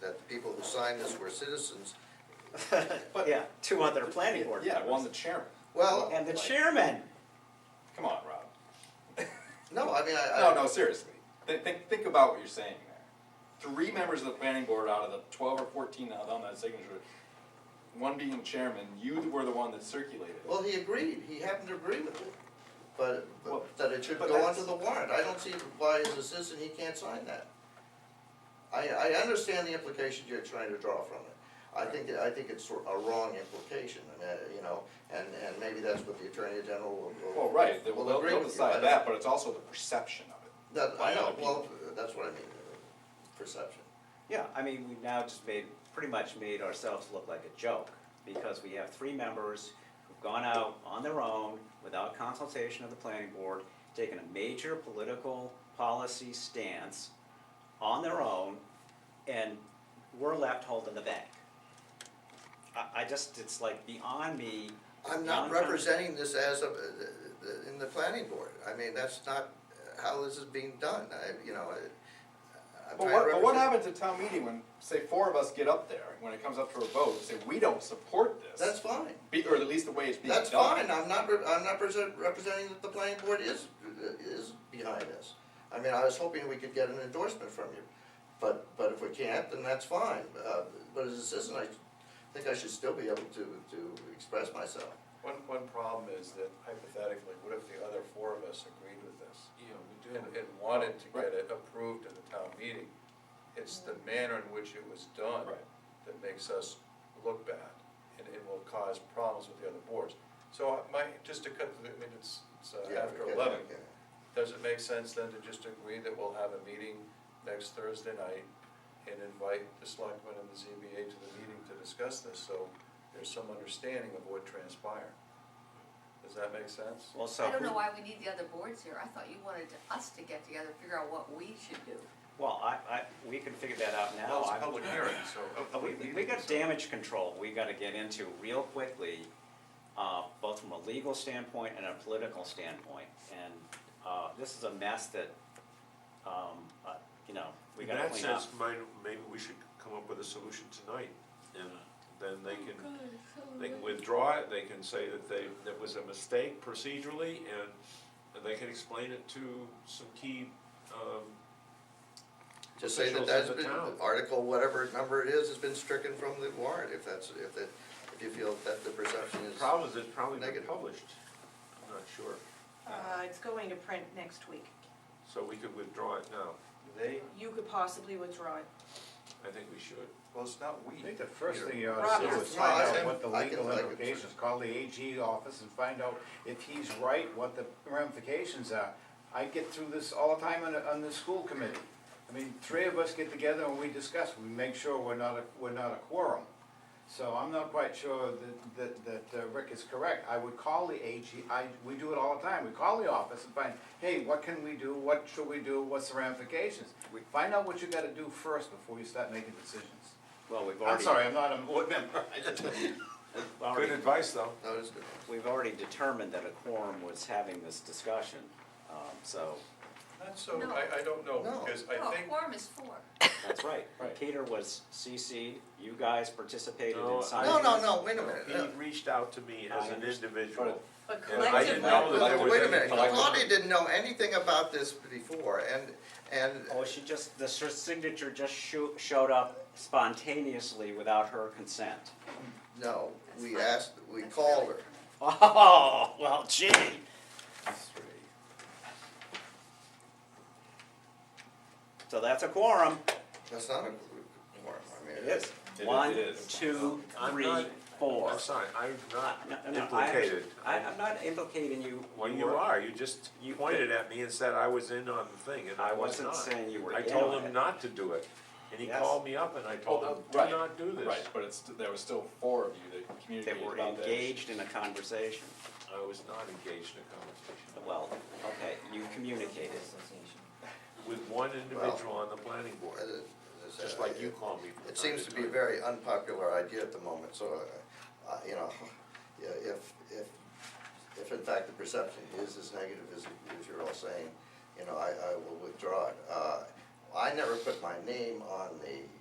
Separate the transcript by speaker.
Speaker 1: that the people who signed this were citizens.
Speaker 2: But-
Speaker 3: Yeah, two other planning board
Speaker 2: Yeah, well, I'm
Speaker 3: members.
Speaker 2: the chairman.
Speaker 1: Well,
Speaker 3: And the
Speaker 2: Like,
Speaker 3: chairman.
Speaker 2: Come on, Rob.
Speaker 1: no, I mean, I. I-
Speaker 2: No, no, seriously. Think, think, think about what you're saying there. Three members of the planning board out of the twelve or fourteen on that signature, one being chairman, you were the one that circulated it.
Speaker 1: Well, he agreed, he happened to agree with it, but,
Speaker 2: Well,
Speaker 1: but that it should
Speaker 2: but
Speaker 1: go
Speaker 2: that's-
Speaker 1: onto the warrant, I don't see why as a citizen he can't sign that. I, I understand the implication you're trying to draw from it, I think, I think it's a wrong implication, and, uh, you know, and, and maybe that's what the Attorney General will. will-
Speaker 2: Well, right, they-
Speaker 1: will
Speaker 2: well, they'll,
Speaker 1: agree
Speaker 2: they'll
Speaker 1: with you. I
Speaker 2: decide
Speaker 1: don't-
Speaker 2: that, but it's also the perception of it.
Speaker 1: That,
Speaker 2: by
Speaker 1: I
Speaker 2: other
Speaker 1: know, well,
Speaker 2: people.
Speaker 1: that's what I mean, uh, perception.
Speaker 3: Yeah, I mean, we've now just made, pretty much made ourselves look like a joke, because we have three members who've gone out on their own, without consultation of the planning board, taken a major political policy stance on their own, and we're left holding the bag. I, I just, it's like beyond me.
Speaker 1: I'm not
Speaker 3: beyond-
Speaker 1: representing this as a, in the planning board, I mean, that's not how this is being done, I, you know, I. I'm
Speaker 2: But
Speaker 1: trying
Speaker 2: what,
Speaker 1: to
Speaker 2: but what
Speaker 1: represent-
Speaker 2: happens at town meeting when, say, four of us get up there, when it comes up to a vote, and say, we don't support this?
Speaker 1: That's fine,
Speaker 2: Be, or at least the way it's being done.
Speaker 1: that's fine, I'm not, re- I'm not present, representing that the planning board is, is behind this. I mean, I was hoping we could get an endorsement from you, but, but if we can't, then that's fine, uh, but as a citizen, I think I should still be able to, to express myself.
Speaker 4: One, one problem is that hypothetically, what if the other four of us agreed with this? And, and wanted to get it approved at the town meeting? It's the
Speaker 1: Mm-hmm.
Speaker 4: manner in which it was done
Speaker 2: Right.
Speaker 4: that makes us look bad, and it will cause problems with the other boards. So uh, my, just to cut, to the- I mean, it's, it's uh,
Speaker 1: Yeah,
Speaker 4: after
Speaker 1: okay,
Speaker 4: eleven.
Speaker 1: okay.
Speaker 4: Does it make sense then to just agree that we'll have a meeting next Thursday night and invite the selectmen and the ZBA to the meeting to discuss this, so there's some understanding of what transpired? Does that make sense?
Speaker 3: Well, so
Speaker 5: I don't know
Speaker 3: who-
Speaker 5: why we need the other boards here, I thought you wanted to- us to get together, figure out what we should do.
Speaker 3: Well, I, I, we can figure that out now.
Speaker 4: Well, it's a
Speaker 3: I'm-
Speaker 4: public hearing, so. a
Speaker 3: Uh, We,
Speaker 4: public
Speaker 3: we
Speaker 4: meeting,
Speaker 3: got
Speaker 4: so-
Speaker 3: damage control we gotta get into real quickly, uh, both from a legal standpoint and a political standpoint. And, uh, this is a mess that, um, uh, you know, we
Speaker 6: In
Speaker 3: gotta
Speaker 6: that
Speaker 3: clean up.
Speaker 6: sense, might, maybe we should come up with a solution tonight, and then they can, they can withdraw it, they can say that they, that was a mistake procedurally, and, and they can explain it to some key, um,
Speaker 1: Just say that
Speaker 6: officials
Speaker 1: that's
Speaker 6: in the
Speaker 1: been,
Speaker 6: town.
Speaker 1: article, whatever number it is, has been stricken from the warrant, if that's, if that, if you feel that the perception is.
Speaker 6: Problem is, it's probably been
Speaker 1: Negative.
Speaker 6: published, I'm not sure,
Speaker 7: Uh, it's going to print next week.
Speaker 6: so we could withdraw it now,
Speaker 4: They,
Speaker 7: You could possibly withdraw it.
Speaker 6: I think we should.
Speaker 4: well, it's not we.
Speaker 8: I think the first thing you ought
Speaker 7: Rob,
Speaker 8: to do
Speaker 7: you're-
Speaker 8: is find
Speaker 1: No, I-
Speaker 8: out what the
Speaker 1: I can-
Speaker 8: legal
Speaker 1: I can-
Speaker 8: implications, call the AG office and find out if he's right, what the ramifications are. I get through this all the time on, the- on the school committee. I mean, three of us get together and we discuss, we make sure we're not, a- we're not a quorum. So I'm not quite sure that, that, that uh, Rick is correct. I would call the AG, I, we do it all the time. We call the office and find, hey, what can we do? What should we do? What's the ramifications? Find out what you gotta do first before you start making decisions.
Speaker 3: Well, we've
Speaker 8: I'm
Speaker 3: already,
Speaker 8: sorry, I'm not a board member.
Speaker 3: we've already,
Speaker 6: advice, though.
Speaker 1: No, it's good.
Speaker 3: we've already determined that a quorum was having this discussion, um, so,
Speaker 4: Not so,
Speaker 5: No.
Speaker 4: I, I don't know,
Speaker 1: No.
Speaker 4: because
Speaker 5: No,
Speaker 4: I think,
Speaker 5: Oh, quorum is four.
Speaker 3: that's right.
Speaker 2: Right.
Speaker 3: Peter was CC, you guys participated in
Speaker 6: No, I-
Speaker 3: signing
Speaker 1: No, no,
Speaker 3: this.
Speaker 1: no, wait a minute,
Speaker 6: He
Speaker 1: no.
Speaker 6: reached out to me as
Speaker 3: I
Speaker 6: an
Speaker 3: understand.
Speaker 6: individual,
Speaker 7: But
Speaker 6: and I didn't
Speaker 7: collectively,
Speaker 6: know that there was
Speaker 1: Wait a
Speaker 6: any
Speaker 1: minute,
Speaker 6: collective-
Speaker 1: Claudia didn't know anything about this before, and, and,
Speaker 3: Oh, she just, the s- signature just sho- showed up spontaneously without her consent.
Speaker 1: no, we
Speaker 5: That's fine.
Speaker 1: asked, we
Speaker 5: That's
Speaker 1: called her.
Speaker 5: really criminal.
Speaker 3: Oh, well, gee. So that's a quorum.
Speaker 1: That's not a quorum, I mean.
Speaker 2: It
Speaker 3: One,
Speaker 2: is.
Speaker 3: two,
Speaker 6: I'm
Speaker 3: three,
Speaker 6: not-
Speaker 3: four.
Speaker 6: I'm sorry, I'm not
Speaker 3: No, no, I-
Speaker 6: implicated.
Speaker 3: I, I'm not implicating you.
Speaker 6: Well, you
Speaker 3: were-
Speaker 6: are, you just
Speaker 3: You-
Speaker 6: pointed at me and said I was in on the thing, and
Speaker 3: I
Speaker 6: I was
Speaker 3: wasn't
Speaker 6: not.
Speaker 3: saying you were
Speaker 6: I
Speaker 3: in
Speaker 6: told
Speaker 3: on it.
Speaker 6: him not to do it, and he
Speaker 3: Yes.
Speaker 6: called me up and I told him,
Speaker 2: Well,
Speaker 6: do
Speaker 2: right,
Speaker 6: not do this.
Speaker 2: Right, but it's, there was still four of you that
Speaker 3: That
Speaker 2: communicated
Speaker 3: were
Speaker 2: about that.
Speaker 3: engaged in a conversation.
Speaker 6: I was not engaged in a conversation
Speaker 3: Well, okay, you communicated.
Speaker 6: with one individual on the planning board,
Speaker 1: As it- as I
Speaker 6: just
Speaker 1: said,
Speaker 6: like you
Speaker 1: it-
Speaker 6: call me. from
Speaker 1: It
Speaker 6: time
Speaker 1: seems to be a
Speaker 6: time.
Speaker 1: very unpopular idea at the moment, so, uh, uh, you know, yeah, if, if, if in fact the perception is as negative as, as you're all saying, you know, I, I will withdraw it. Uh, I never put my name on the